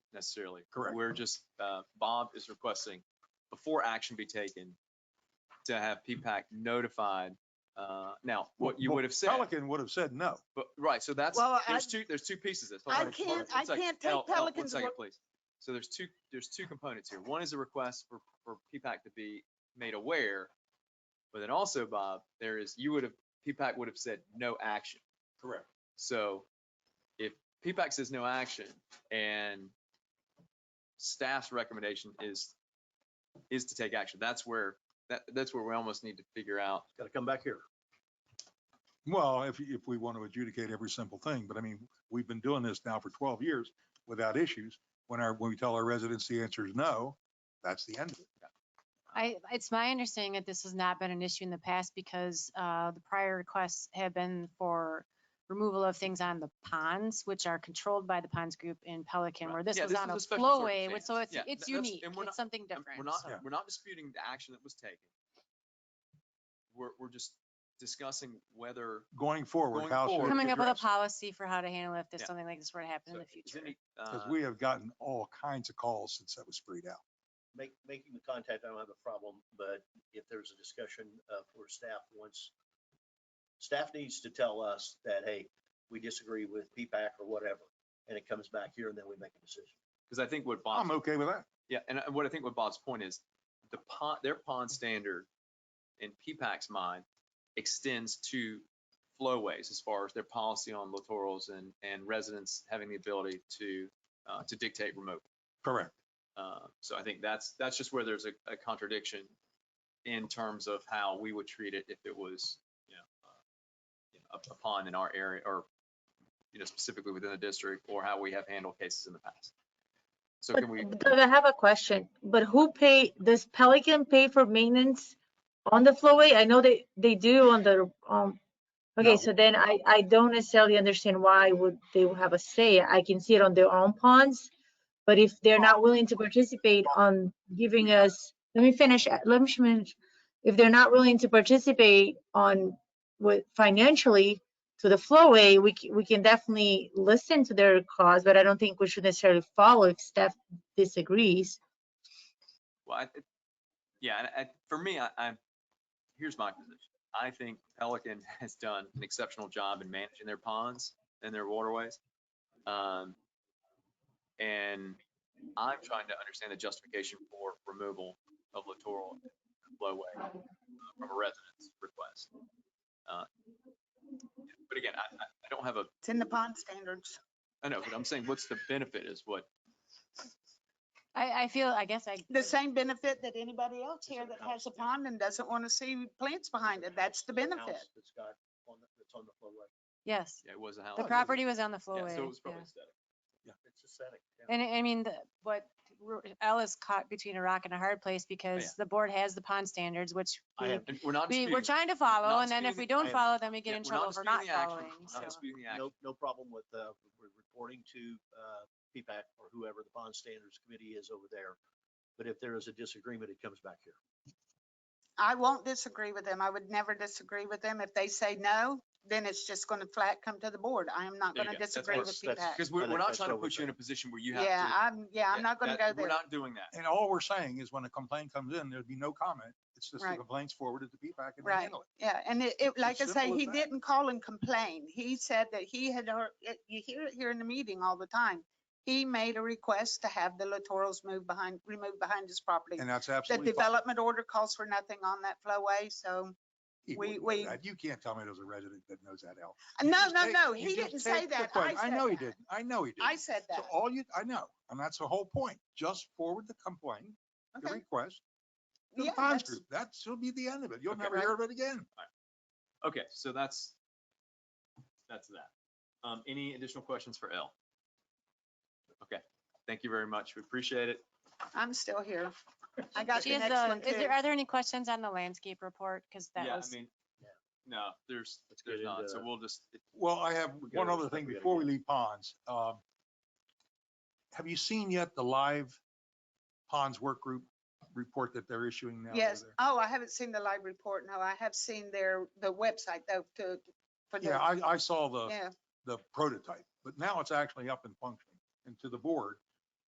necessarily. Correct. We're just, uh, Bob is requesting, before action be taken, to have P-PAC notified. Uh, Now, what you Well, would have said, Pelican would have said no. but, right, so that's, Well, I- there's two, there's two pieces. to this. Hold I on, hold can't- on, one I second. can't take Al, Al, One Pelican's second, word. please. So there's two, there's two components here. One is a request for, for P-PAC to be made aware. But then also, Bob, there is, you would have, P-PAC would have said no action. Correct. So if PPAC says no action and staff's recommendation is, is to take action, that's where, that, that's where we almost need to figure out. Got to come back here. Well, if, if we want to adjudicate every simple thing, but I mean, we've been doing this now for 12 years without issues. When our, when we tell our residents the answer is no, that's the end of it. I, it's my understanding that this has not been an issue in the past because uh, the prior requests have been for removal of things on the ponds, which are controlled by the ponds group in Pelican, where this Yeah, was this on is a a special sort of flowway, which- so chance. it's, Yeah, it's that- that's- unique. and we're not- It's something And different. We're not, so- we're not disputing the action that was taken. We're, we're just discussing whether. Going forward, Going how forward. should it be Coming up with a addressed? policy for how to handle if Yeah. this, something like this were to happen in so the is future. any, Because uh, we have gotten all kinds of calls since that was sprayed out. Make, making the contact, I don't have a problem, but if there's a discussion uh, for staff, once staff needs to tell us that, hey, we disagree with P-PAC or whatever, and it comes back here and then we make a decision. Cause I think what Bob's I'm okay with that. Yeah, and I- what I think what Bob's point is, the pond, their pond standard in P-PAC's mind extends to flowways as far as their policy on littorals and, and residents having the ability to, uh, to dictate remote. Correct. Uh, so I think that's, that's just where there's a, a contradiction in terms of how we would treat it if it was, you know, uh, you know, a- a pond in our area or, you know, specifically within the district or how we have handled cases in the past. So But can we? but I have a question, but who pay, does Pelican pay for maintenance on the flowway? I know they, they do on the, um, No. okay, so then I, I don't necessarily understand why would they would have a say. I can see it on their own ponds. But if they're not willing to participate on giving us, let me finish, uh, let me finish. If they're not willing to participate on with financially to the flowway, we, c- we can definitely listen to their cause, but I don't think we should necessarily follow if staff disagrees. Well, I, it- yeah, and I, for me, I, I, here's my position. I think Pelican has done an exceptional job in managing their ponds and their waterways. Um, and I'm trying to understand the justification for removal of littoral flowway uh, from a resident's request. Uh, But again, I, I I don't have a, It's in the pond standards. I know, but I'm saying what's the benefit is what, I, I feel, I guess I. The same benefit that anybody else here that has a pond and doesn't want to see plants behind it. That's the House benefit. That's got on, the- that's on the flowway. Yes, Oh, yeah, it was a house. the property was on the Yeah, flowway. So it was yeah. probably aesthetic. It's aesthetic. yeah. And I I mean, the- what, we're- Elle is caught between a rock and a hard place because the board has the pond standards, which Oh, I we- am, and we're not we, disputing. we're trying to follow. And then if disputing we the- I- don't follow, then we Yeah, get in we're trouble for not disputing the action. following. We're Not So disputing the action. No, no problem with, uh, re- reporting to, uh, P-PAC or whoever the bond standards committee is over there. But if there is a disagreement, it comes back here. I won't disagree with them. I would never disagree with them. If they say no, then it's just going to flat come to the board. I am not There you going to go. That's disagree what- with that's- PPAC. Because we're, I we're think not that's trying to what we're put you in a position where you have to. Yeah, I'm, yeah, I'm yeah, not going to that- go there. We're not doing that. And all we're saying is when a complaint comes in, there'd be no comment. It's just the Right. complaint's forwarded to P-PAC and they Right. handle it. Yeah, and it, it, like I as say, simple as he that. didn't call and complain. He said that he had heard, it- you hear it here in the meeting all the time. He made a request to have the littorals moved behind, removed behind his property. And that's The absolutely fine. development order calls for nothing on that flowway, so, He we- wouldn't know we- that. You can't tell me there's a resident that knows that, Al. You no, just no, take- no, you he just didn't say take the that. point. I I said know he that. didn't. I know he didn't. I said that. So all you, I know, and that's the whole point. Just forward the complaint, the Okay. request to the Yeah, bonds that's- group. That should be the end of it. You'll Okay. never hear of it again. Okay, so that's, that's that. Um, any additional questions for L? Okay, thank you very much. We appreciate it. I'm still here. I got she the is, next uh, one is too. there, are there any questions on the landscape report? Because that Yeah, I was, mean, no, there's, Let's there's get not. into So that. we'll just, it- Well, I have We one gotta other respect- thing we gotta before we get- leave ponds. Um, Have you seen yet the live ponds work group report that they're issuing now? over Yes. there? Oh, I haven't seen the live report. No, I have seen their, the website though, to, for Yeah, the, I, I saw the, yeah. the prototype, but now it's actually up and functioning. And to the board,